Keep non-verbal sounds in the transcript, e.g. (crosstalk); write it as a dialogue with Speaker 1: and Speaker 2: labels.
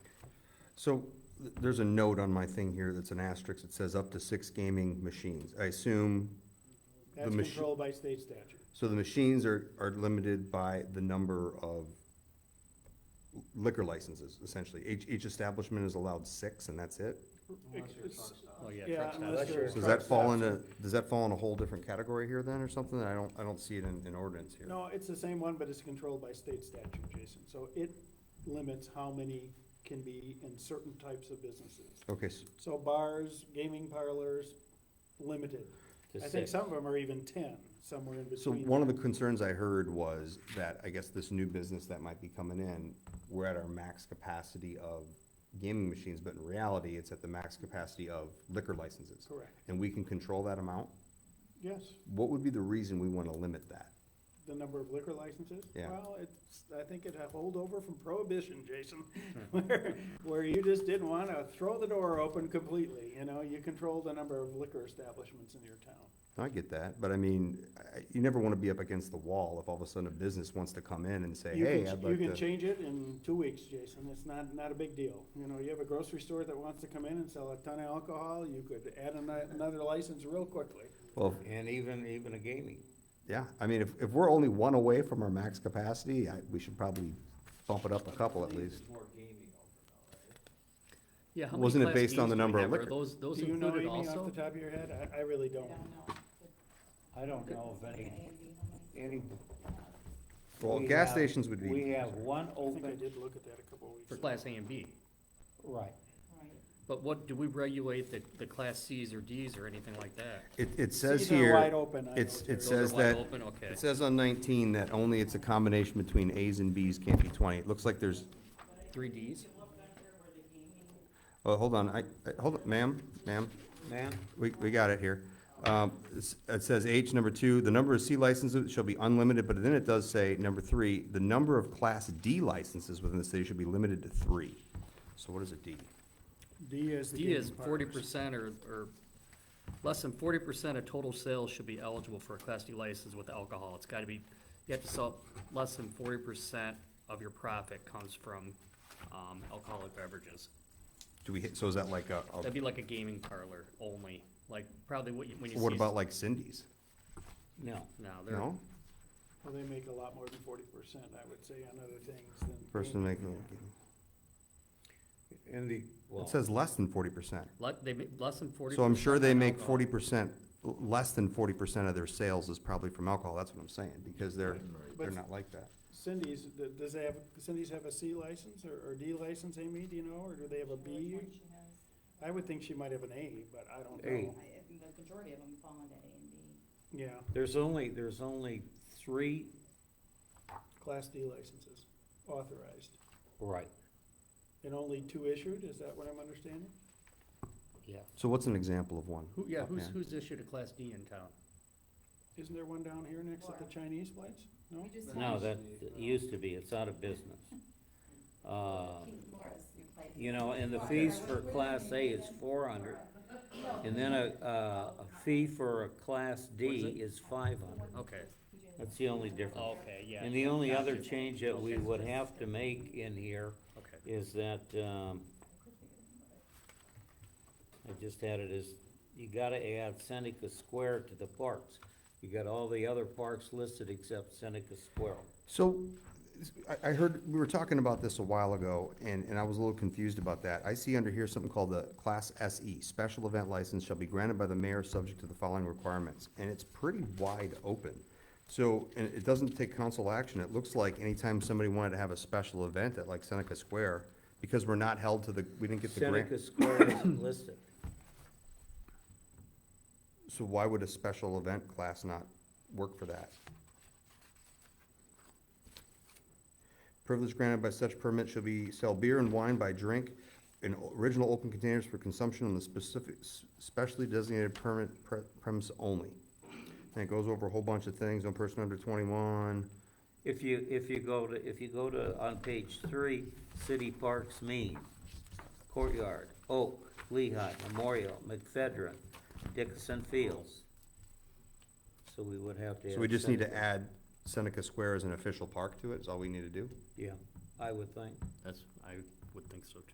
Speaker 1: So th- there's a note on my thing here that's an asterisk. It says up to six gaming machines. I assume,
Speaker 2: That's
Speaker 1: machi-
Speaker 2: controlled by state statute.
Speaker 1: so the machines are, are limited by the number of liquor licenses, essentially. Each, each establishment is allowed six and that's it?
Speaker 2: Unless you're a truck
Speaker 3: Well, yeah,
Speaker 2: Yeah,
Speaker 3: truck stop.
Speaker 2: unless you're-
Speaker 1: So does that fall into, does that fall in a whole different category here then or something? I don't, I don't see it in, in ordinance here.
Speaker 2: No, it's the same one, but it's controlled by state statute, Jason. So it limits how many can be in certain types of businesses.
Speaker 1: Okay, s-
Speaker 2: So bars, gaming parlors, limited.
Speaker 3: To
Speaker 2: I think
Speaker 3: six.
Speaker 2: some of them are even ten, somewhere in
Speaker 1: so
Speaker 2: between.
Speaker 1: one of the concerns I heard was that, I guess this new business that might be coming in, we're at our max capacity of gaming machines, but in reality, it's at the max capacity of liquor licenses.
Speaker 2: Correct,
Speaker 1: And we can control that amount?
Speaker 2: yes.
Speaker 1: What would be the reason we want to limit that?
Speaker 2: The number of liquor licenses?
Speaker 1: Yeah.
Speaker 2: Well, it's, I think it had holdover from prohibition, Jason, (laughs) where, where you just didn't wanna throw the door open completely, you know? You control the number of liquor establishments in your town.
Speaker 1: I get that, but I mean, I- you never want to be up against the wall if all of a sudden a business wants to come in and say,
Speaker 2: You can
Speaker 1: hey,
Speaker 2: ch-
Speaker 1: I'd like
Speaker 2: You can
Speaker 1: to.
Speaker 2: change it in two weeks, Jason, it's not, not a big deal. You know, you have a grocery store that wants to come in and sell a ton of alcohol, you could add ano- another license real quickly.
Speaker 1: Well,
Speaker 3: And even, even a gaming.
Speaker 1: yeah, I mean, if, if we're only one away from our max capacity, I, we should probably bump it up a couple at least.
Speaker 4: Yeah, how many
Speaker 1: Wasn't it
Speaker 4: Class
Speaker 1: based on
Speaker 4: Bs
Speaker 1: the
Speaker 4: do we
Speaker 1: number of
Speaker 4: have? Are
Speaker 1: liquor?
Speaker 4: Those,
Speaker 2: Do
Speaker 4: those
Speaker 2: you know
Speaker 4: included
Speaker 2: anything off the
Speaker 4: also?
Speaker 2: top of your head? I, I really don't.
Speaker 3: I don't know of any, any.
Speaker 1: Well,
Speaker 3: we
Speaker 1: gas
Speaker 3: have-
Speaker 1: stations would be-
Speaker 3: We have one
Speaker 2: I think I
Speaker 3: open,
Speaker 2: did look at that a couple of weeks
Speaker 4: For
Speaker 2: ago.
Speaker 4: Class A and B.
Speaker 3: right,
Speaker 4: But what, do we regulate the, the Class Cs or Ds or anything like that?
Speaker 1: It, it says
Speaker 2: These are wide
Speaker 1: here,
Speaker 2: open, I know,
Speaker 1: it's,
Speaker 2: Terry.
Speaker 1: it
Speaker 4: Those are
Speaker 1: says
Speaker 4: wide
Speaker 1: that,
Speaker 4: open, okay.
Speaker 1: it says on nineteen that only it's a combination between As and Bs can't be twenty. It looks like there's,
Speaker 4: Three Ds?
Speaker 1: oh, hold on, I, I- hold, on, ma'am, ma'am.
Speaker 3: ma'am?
Speaker 1: We, we got it here. Um, it's- It says H, number two, the number of C licenses shall be unlimited, but then it does say, number three, the number of Class D licenses within the city should be limited to three. So what is a D?
Speaker 2: D is the
Speaker 4: D is
Speaker 2: gaming parlors.
Speaker 4: forty percent or, or less than forty percent of total sales should be eligible for a Class D license with alcohol. It's gotta be, you have to sell, less than forty percent of your profit comes from, um, alcoholic beverages.
Speaker 1: Do we, hit- so is that like a, a-
Speaker 4: That'd be like a gaming parlor only, like probably what you, when you see.
Speaker 1: what about like Cindy's?
Speaker 3: No.
Speaker 4: No, they're.
Speaker 1: No?
Speaker 2: Well, they make a lot more than forty percent, I would say, on other things than.
Speaker 1: Person
Speaker 2: gaming.
Speaker 1: making,
Speaker 3: In the, well,
Speaker 1: it says less than forty percent.
Speaker 4: Let, they make less than forty.
Speaker 1: So I'm sure they make forty percent, less than forty percent of their sales is probably from alcohol. That's what I'm saying, because they're, they're
Speaker 2: But-
Speaker 1: not like that.
Speaker 2: Cindy's, th- does they have, Cindy's have a C license or, or D license, Amy, do you know, or do they have a B? I would think she might have an A, but I don't
Speaker 3: A.
Speaker 2: know.
Speaker 5: The majority of them fall into A and B.
Speaker 2: Yeah,
Speaker 3: there's only, there's only three,
Speaker 2: class D licenses, authorized,
Speaker 3: right,
Speaker 2: and only two issued, is that what I'm understanding?
Speaker 3: yeah.
Speaker 1: So what's an example of one?
Speaker 4: Who, yeah, who's,
Speaker 1: Okay.
Speaker 4: who's issued a class D in town?
Speaker 2: Isn't there one down here next to the
Speaker 5: Laura.
Speaker 2: Chinese place? No?
Speaker 5: We just
Speaker 3: No,
Speaker 5: have
Speaker 3: that, that used to be, it's out of business. Uh,
Speaker 5: King Laura's new place.
Speaker 3: you know, and the fees for Class A is four hundred, and then a, a a fee for a Class D is five hundred.
Speaker 4: Okay,
Speaker 3: That's the only difference.
Speaker 4: Oh, okay, yeah.
Speaker 3: And the only other
Speaker 4: Gotcha.
Speaker 3: change that we
Speaker 4: Okay.
Speaker 3: would have to make in here
Speaker 4: Okay,
Speaker 3: is that, um, I just had it as, you gotta add Seneca Square to the parks. You got all the other parks listed except Seneca Square.
Speaker 1: So, I, I heard, we were talking about this a while ago, and, and I was a little confused about that. I see under here something called the Class SE, Special Event License shall be granted by the mayor subject to the following requirements, and it's pretty wide open. So, and it doesn't take council action, it looks like anytime somebody wanted to have a special event at like Seneca Square, because we're not held to the, we didn't get the
Speaker 3: Seneca
Speaker 1: grant,
Speaker 3: Square isn't listed.
Speaker 1: so why would a special event class not work for that? Privilege granted by such permit shall be sell beer and wine by drink in original open containers for consumption on the specific, specially designated permit pre- premise only. And it goes over a whole bunch of things, no person under twenty-one.
Speaker 3: If you, if you go to, if you go to, on page three, city parks mean, Courtyard, Oak, Lehigh, Memorial, McFedrin, Dickinson Fields. So we would have to.
Speaker 1: So
Speaker 3: add
Speaker 1: we just need to
Speaker 3: Seneca.
Speaker 1: add Seneca Square as an official park to it, is all we need to do?
Speaker 3: Yeah, I would think.
Speaker 4: that's, I would think so